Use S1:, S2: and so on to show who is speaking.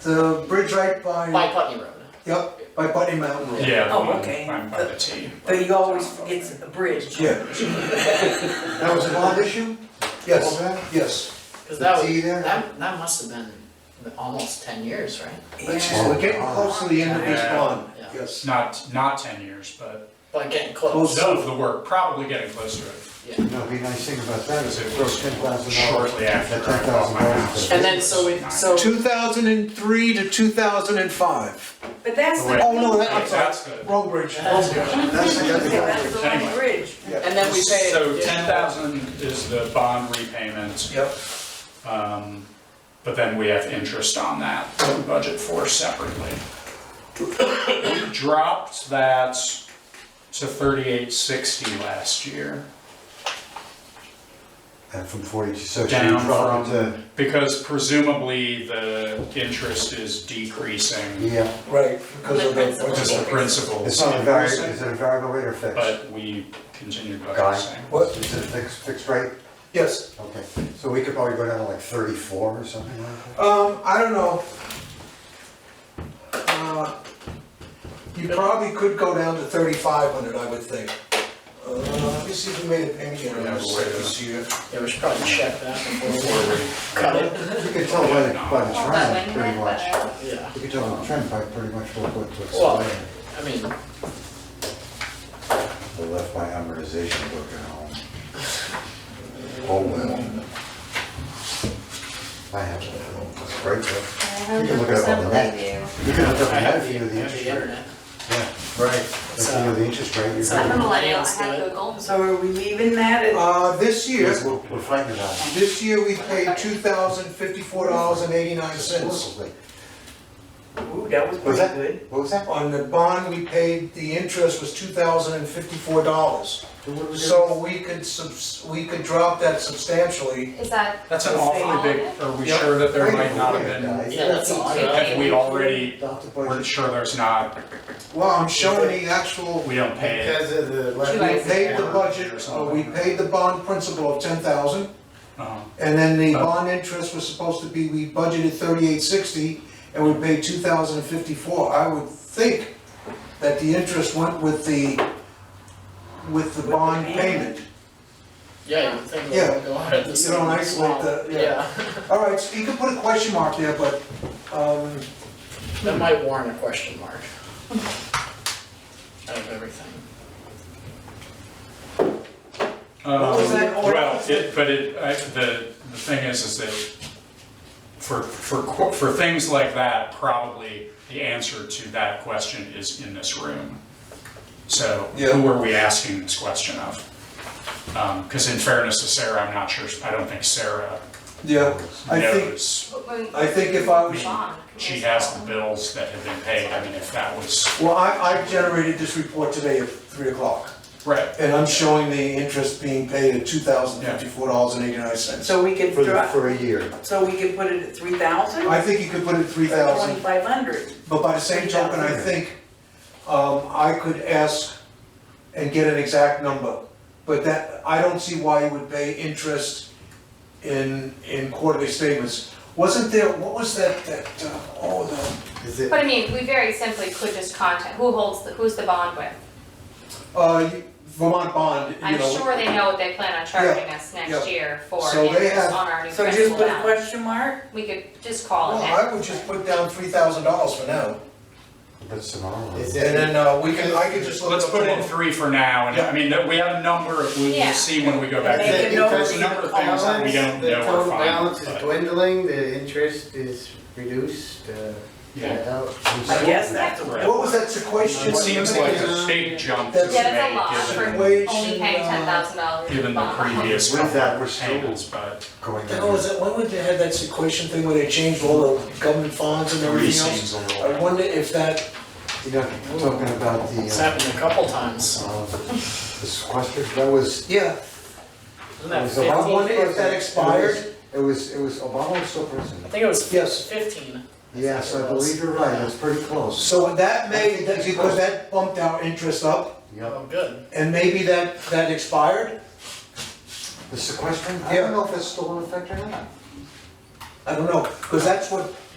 S1: The bridge right by.
S2: by Putney Road.
S1: Yep, by Putney Mountain.
S3: Yeah.
S4: Oh,
S3: the one
S4: okay.
S3: By by the T.
S4: But you always forget the bridge.
S1: Yeah.
S5: That was a bond issue?
S1: Yes,
S5: All that?
S1: yes.
S2: Cause that
S5: The T
S2: was,
S5: there?
S2: that, that must have been almost ten years, right?
S4: Yeah.
S5: Well,
S1: We're getting close to the end of this
S3: Yeah.
S1: bond,
S2: Yeah.
S1: yes.
S3: Not, not ten years, but
S2: But getting
S1: Close.
S2: close,
S3: some of the work, probably getting close to it.
S2: yeah.
S5: No, the nice thing about that is
S3: Because
S5: it
S3: it
S5: grows
S3: was
S5: ten thousand dollars.
S3: shortly after
S5: That
S3: I bought my
S5: $10,000
S3: house.
S2: And then, so we, so,
S1: Two thousand and three to two thousand and five.
S4: But that's the.
S3: Wait.
S1: Oh, no, that-
S3: Wait, That's good.
S1: Wrong bridge, wrong
S2: That's-
S1: bridge.
S5: That's the other
S4: Okay, that's
S5: guy.
S4: the wrong
S3: Anyway.
S4: bridge.
S1: Yeah.
S2: and then we pay.
S3: So ten thousand is the bond repayment,
S1: Yep,
S3: um, but then we have interest on that, that we budget for separately. We dropped that to thirty-eight sixty last year.
S5: And from forty, so she
S3: Down
S5: dropped to,
S3: from, because presumably the interest is decreasing
S5: yeah,
S1: right, because of the.
S3: because the principal
S5: it's
S3: is
S5: not a variable, is
S3: increasing,
S5: it a variable rate or fixed?
S3: but we continued
S5: Guy.
S3: budgeting.
S1: What?
S5: Is it a fixed, fixed rate?
S1: Yes,
S5: Okay, so we could probably go down to like thirty-four or something like that?
S1: um, I don't know. Uh, You probably could go down to thirty-five hundred, I would think. Uh, let me see if we made a payment here on
S3: Yeah,
S1: this
S3: but wait a
S1: this year.
S2: Yeah, we should probably check that before we
S3: Before we-
S2: cut it,
S5: You can tell by the, by the
S6: Well, that
S5: trend,
S6: one
S5: pretty
S6: went
S5: much.
S6: better.
S2: yeah,
S5: You can tell by the trend by pretty much what, what, what's
S2: Well-
S5: there.
S2: I mean,
S5: I left my amortization book at home. Oh, well. I have a spreadsheet.
S6: I have
S5: You can look it up on the net.
S6: review.
S5: You can look up
S2: I
S5: that
S2: have
S5: if
S2: the,
S5: you know
S2: I
S5: the
S2: have
S5: interest
S2: the
S5: rate.
S2: internet.
S5: Yeah, right. If you know the interest rate, you're
S6: I'm a
S5: gonna,
S6: millennial, I
S2: Let's do
S6: have
S2: it.
S6: Google.
S4: So are we leaving that at?
S1: Uh, this year,
S5: we're, we're fighting it out.
S1: this year we paid two thousand fifty-four dollars and eighty-nine cents.
S4: Ooh, that was
S5: Was
S4: pretty
S5: that,
S4: good.
S5: what was that?
S1: On the bond, we paid, the interest was two thousand and fifty-four dollars. So we could subs, we could drop that substantially.
S6: Is that,
S3: That's an awfully big, are we sure that there might not have been,
S2: Yeah, that's all.
S3: have we already,
S5: Dr.
S3: we're
S5: Boyd,
S3: sure there's not,
S1: Well, I'm showing the actual,
S3: we don't pay it.
S5: of the.
S1: we paid the budget, uh, we paid the bond principal of ten thousand,
S3: Uh-huh.
S1: and then the bond interest was supposed to be, we budgeted thirty-eight sixty, and we paid two thousand and fifty-four. I would think that the interest went with the, with the
S4: the
S1: bond
S4: payment.
S1: payment.
S2: Yeah, you would think we
S1: Yeah.
S2: would go out at the
S1: You
S2: same.
S1: don't isolate the- yeah. All right, so you can put a question mark there, but, um,
S2: Yeah, that might warrant a question mark. Out of everything.
S3: Um,
S4: was that order?
S3: Well, it, but it, I, the, the thing is, is that for, for, qu- for things like that, probably the answer to that question is in this room. So who
S1: Yeah.
S3: are we asking this question of? Um, cause in fairness to Sarah, I'm not sure, I don't think Sarah
S1: yeah, I think,
S3: knows.
S1: I think if I was,
S3: She has the bills that have been paid, I mean, if that was,
S1: well, I, I generated this report today at three o'clock,
S3: right,
S1: and I'm showing the interest being paid at two thousand fifty-four dollars and eighty-nine cents.
S4: So we could
S5: For, the-
S4: drop,
S5: for a year.
S4: so we could put it at three thousand?
S1: I think you could put it three thousand,
S4: Twenty-five hundred.
S1: but by the same token, I think, um, I could ask and get an exact number. But that, I don't see why you would pay interest in, in quarterly statements. Wasn't there, what was that, that, uh, oh, the
S5: Is it?
S6: But I mean, we very simply could just contact, who holds, the who's the bond with?
S1: Uh, Vermont bond, you
S6: I'm
S1: know,
S6: sure they know what they plan on charging us
S1: yeah.
S6: next year for
S1: So they have-
S6: interest on our new
S4: So just
S6: principal
S4: put a
S6: balance.
S4: question mark?
S6: We could just call
S1: well,
S6: it
S1: I
S6: that.
S1: would just put down three thousand dollars for now.
S5: That's tomorrow.
S1: And then, uh, we can, I could just look.
S3: let's
S1: up
S3: put in
S1: tomorrow.
S3: three for now, and I mean, that- we have a number, of- we
S6: Yeah.
S3: will see when we go back.
S4: And
S3: to
S4: they
S3: the-
S4: can know
S3: There's a
S4: we
S3: number of
S4: can
S3: things that we
S4: call
S3: don't
S7: The
S3: know are
S7: total balance
S3: fine, but,
S7: is dwindling, the interest is reduced, uh,
S3: yeah.
S4: I guess that's a.
S3: Right.
S1: What was that sequestration?
S3: It seems like a
S7: Yeah.
S3: big jump to
S1: That's-
S6: Yeah, that's
S3: make,
S6: a lot for
S3: given,
S1: Wage
S6: only
S1: and,
S6: paying
S1: uh,
S6: ten thousand dollars in
S3: given the
S6: bond.
S3: previous
S5: With that, we're still-
S3: payments, but
S5: Going
S1: The hell
S5: down.
S1: is it, when would they have that sequestration thing where they changed all the government funds and
S3: three
S1: everything else?
S3: seems a little.
S1: I wonder if that,
S5: You know, talking about the,
S2: It's
S5: uh,
S2: happened a couple times,
S5: uh, the sequester, that was,
S1: yeah,
S2: isn't
S5: it
S2: that
S5: was
S2: fifteen?
S5: Obama.
S1: I wonder if
S5: was
S1: that
S5: president.
S1: expired.
S5: It was, it was, Obama was still president.
S2: I think it was
S1: Yes.
S2: fifteen.
S5: Yes, I believe you're right, that's pretty close.
S1: So that may, that- because that bumped our interest up,
S5: Yep.
S2: Oh, good,
S1: and maybe that, that expired?
S5: The sequestration, I
S1: Yeah.
S5: don't know if that's still in effect or not.
S1: I don't know, because that's what